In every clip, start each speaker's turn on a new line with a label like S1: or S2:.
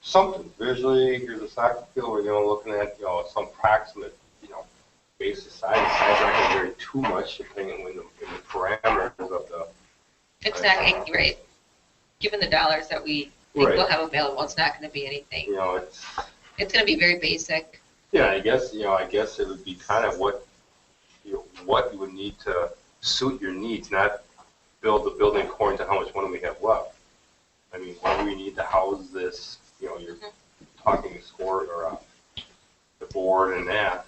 S1: something visually, here's a soccer field, we're, you know, looking at, you know, some proximate, you know, basis size, size not gonna vary too much depending on when the, in the parameters of the,
S2: It's not going to, right, given the dollars that we think we'll have available, it's not going to be anything.
S1: you know, it's,
S2: It's going to be very basic.
S1: yeah, I guess, you know, I guess it would be kind of what, you know, what you would need to suit your needs, not build the building according to how much money we have left. I mean, what do we need to house this, you know, you're talking to score or, uh, the board and that,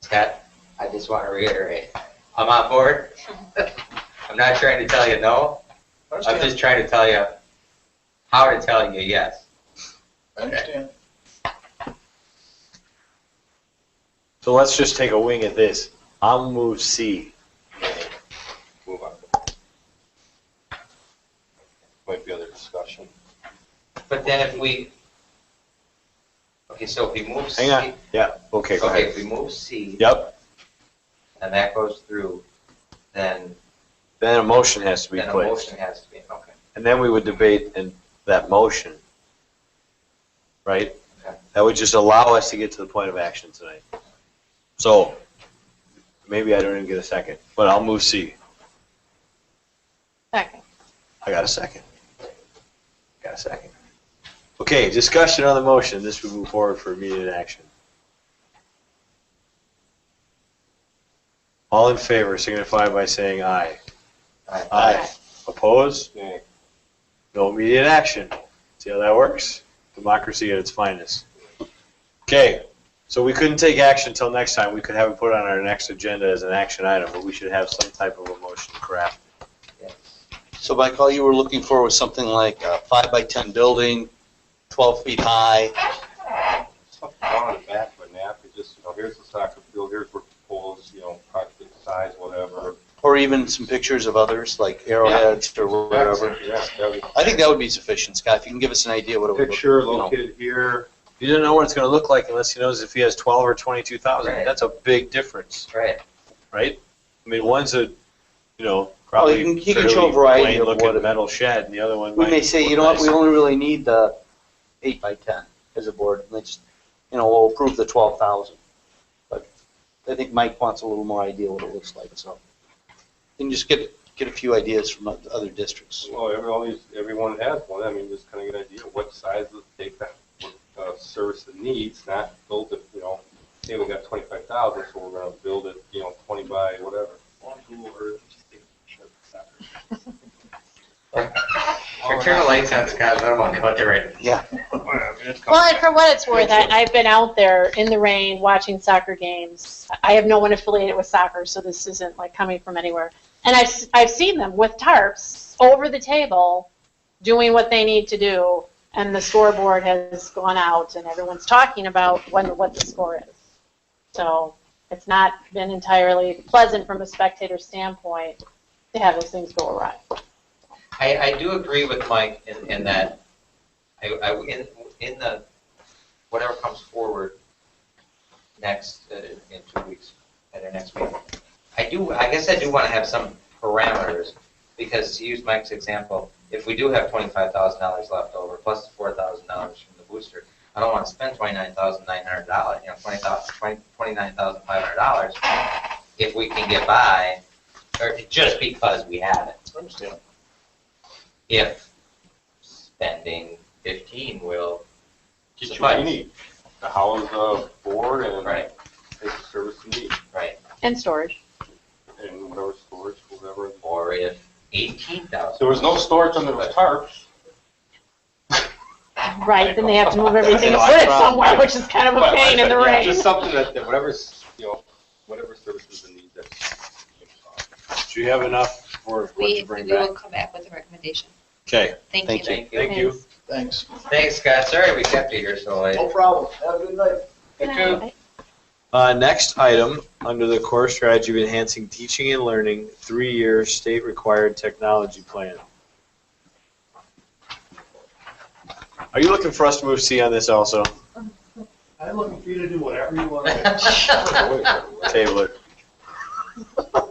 S3: Scott, I just want to reiterate, I'm on board. I'm not trying to tell you no,
S4: I
S3: I'm
S4: understand,
S3: just trying to tell you how to tell you yes.
S4: I understand.
S5: So let's just take a wing at this. I'll move C.
S1: move on. Might be other discussion.
S3: But then if we, okay, so if we move C.
S5: Hang on. Yeah, okay, go
S3: Okay,
S5: ahead.
S3: if we move C.
S5: Yep,
S3: And that goes through, then,
S5: then a motion has to be
S3: then a
S5: placed.
S3: motion has to be, okay.
S5: And then we would debate in that motion, right?
S3: Okay.
S5: That would just allow us to get to the point of action tonight. So, maybe I don't even get a second, but I'll move C.
S6: Second.
S5: I got a second. Got a second. Okay, discussion on the motion. This would move forward for immediate action. All in favor signify by saying aye.
S3: All right.
S5: Aye. Opposed?
S1: Nay.
S5: No immediate action. See how that works? Democracy at its finest. Okay, so we couldn't take action until next time. We could have it put on our next agenda as an action item, but we should have some type of a motion crafted.
S3: Yes.
S7: So Mike, all you were looking for was something like a five by ten building, twelve feet high.
S1: Something down in the back of a napkin, just, you know, here's the soccer field, here's where poles, you know, approximate size, whatever.
S7: Or even some pictures of others, like arrowheads or whatever.
S1: Yeah, that would-
S7: I think that would be sufficient, Scott, if you can give us an idea what it would look like.
S1: Picture located here,
S5: You don't know what it's going to look like unless he knows if he has 12 or 22,000.
S3: Right.
S5: That's a big difference,
S3: Right.
S5: right? I mean, one's a, you know,
S7: Well,
S5: probably
S7: you can- you can show a
S5: fairly
S7: variety of
S5: plain-looking
S7: what it-
S5: metal shed, and the other one
S7: We
S5: might
S7: may
S5: be
S7: say,
S5: more
S7: you know what, we
S5: nice.
S7: only really need the eight by ten as a board, and let's, you know, we'll approve the twelve thousand. But I think Mike wants a little more idea what it looks like, so. And just get, get a few ideas from oth- other districts.
S1: well, every, all these, everyone has one, I mean, just kind of get an idea of what size to take that, what, uh, service it needs, not build it, you know, hey, we got twenty-five thousand, so we're gonna build it, you know, twenty by whatever.
S3: Or Turn the lights on, Scott, I don't want to go out there right now.
S7: Yeah.
S6: Well, and for what it's worth, I, I've been out there in the rain watching soccer games. I have no one affiliated with soccer, so this isn't like coming from anywhere. And I've, s- I've seen them with tarps over the table doing what they need to do, and the scoreboard has gone out, and everyone's talking about when, what the score is. So it's not been entirely pleasant from a spectator standpoint to have those things go awry.
S3: I, I do agree with Mike in, in that, I, I, in, in the, whatever comes forward next, uh, in two weeks, at our next meeting, I do, I guess I do want to have some parameters, because to use Mike's example, if we do have twenty-five thousand dollars left over, plus the four thousand dollars from the booster, I don't want to spend twenty-nine thousand nine hundred dollars, you know, twenty thousand, twenty, twenty-nine thousand five hundred dollars, if we can get by, or just because we have it if spending 15 will
S1: Get you what you
S3: suffice.
S1: need, the house, the board, and
S3: Right,
S1: take the service you need,
S3: right.
S6: And storage.
S1: and whatever storage, whatever.
S3: Or if 18,000.
S1: There was no storage under those tarps.
S6: Right, then they have to move everything and put it somewhere, which is kind of a
S1: Well,
S6: pain in the
S1: yeah,
S6: rain.
S1: Just something that, that whatever's, you know, whatever services they need that.
S5: Do you have enough for what
S2: We,
S5: to
S2: we
S5: bring back?
S2: will come back with a recommendation.
S5: Okay,
S2: Thank you.
S7: Thank
S2: Mike.
S3: Thank you.
S5: you.
S4: Thanks.
S3: Thanks, Scott. Sorry we kept you here so late.
S4: No problem. Have a good night.
S5: Uh, next item, under the core strategy of enhancing teaching and learning, three-year state-required technology plan. Are you looking for us to move C on this also?
S4: I'm looking for you to do whatever you want.
S1: Thank you.
S5: Table it.